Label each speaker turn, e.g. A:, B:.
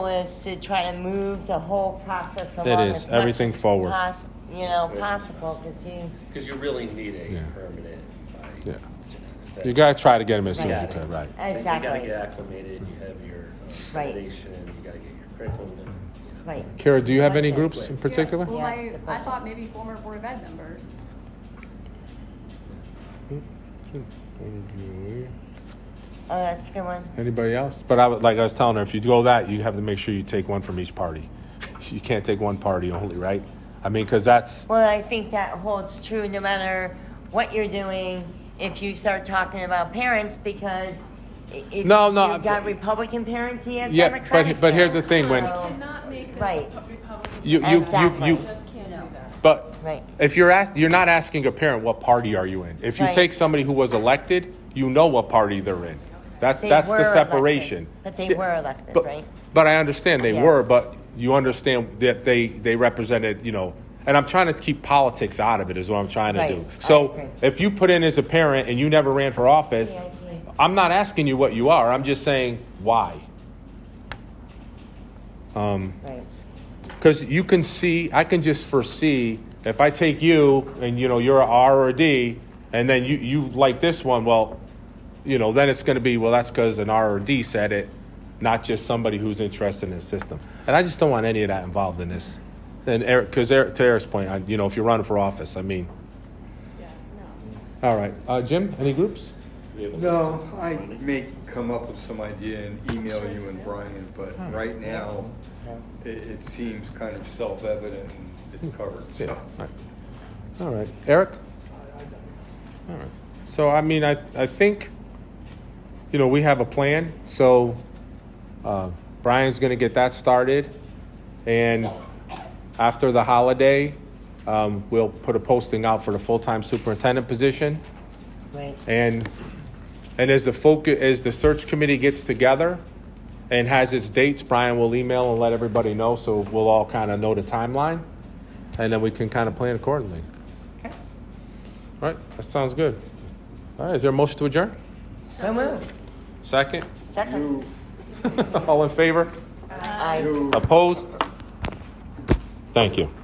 A: is to try to move the whole process along
B: is.
A: as much
B: Everything
A: as
B: forward.
A: pos- you know, possible because you.
C: Because you really need a
B: Yeah.
C: permanent body.
B: Yeah.
C: That-
B: You gotta try to get him as soon as you
C: Right.
B: can, right?
A: Exactly.
C: You gotta get acclimated, you have your um,
A: Right.
C: foundation, you gotta get your curriculum, you know.
A: Right.
B: Kara, do you have any
A: Budget.
B: groups in particular?
D: Yeah, well,
A: Yeah, the
D: I, I
A: budget.
D: thought maybe former Board of Ed members.
A: Oh, that's a good one.
B: Anybody else? But I would, like I was telling her, if you go that, you have to make sure you take one from each party. You can't take one party only, right? I mean, because that's
A: Well, I think that holds true no matter what you're doing. If you start talking about parents, because i- if
B: No, no,
A: you've got
B: I-
A: Republican parents, you have
B: Yeah, but-
A: Democratic
B: but here's the
A: parents.
B: thing, when-
A: So-
E: Cannot make this
A: Right.
E: a Republican.
B: you, you,
A: Exactly.
B: you,
E: You
B: you.
E: just can't do that.
B: But
A: Right.
B: if you're ask, you're not asking a parent what party are you in. If you
A: Right.
B: take somebody who was elected, you know what party they're in. That
A: They
B: that's
A: were
B: the
A: elected,
B: separation.
A: but they
B: Yeah,
A: were elected,
B: but-
A: right?
B: But I understand they
A: Yeah.
B: were, but you understand that they they represented, you know. And I'm trying to keep politics out of it is what I'm trying to
A: Right.
B: do.
A: I agree.
B: So if you put in as a parent and you never ran for office,
A: I agree.
B: I'm not asking you what you are. I'm just saying why. Um,
A: Right.
B: because you can see, I can just foresee if I take you and you know you're a R or a D, and then you you like this one. Well, you know then it's going to be well that's because an R or D said it, not just somebody who's interested in the system. And I just don't want any of that involved in this. And Eric, because Eric, to Eric's point, I, you know if you're running for office, I mean,
E: Yeah, no.
B: all right, uh, Jim, any groups?
C: We have a
F: No,
C: list of
F: I
C: money.
F: may come up with some idea and email you and Brian, but right now,
A: So-
F: it, it seems kind of self-evident and it's covered,
B: Yeah.
F: so.
B: All right. All right. Eric? All right. So, I mean, I, I think, you know, we have a plan. So, uh, Brian's going to get that started. And after the holiday, um, we'll put a posting out for the full time superintendent position.
A: Right.
B: And and as the focus, as the search committee gets together and has its dates, Brian will email and let everybody know, so we'll all kind of know the timeline, and then we can kind of plan accordingly. All right, that sounds good. All right, is there a motion to adjourn?
A: So moved.
B: Second?
A: Second.
F: You,
B: All in favor?
A: I.
F: you.
B: Opposed? Thank you.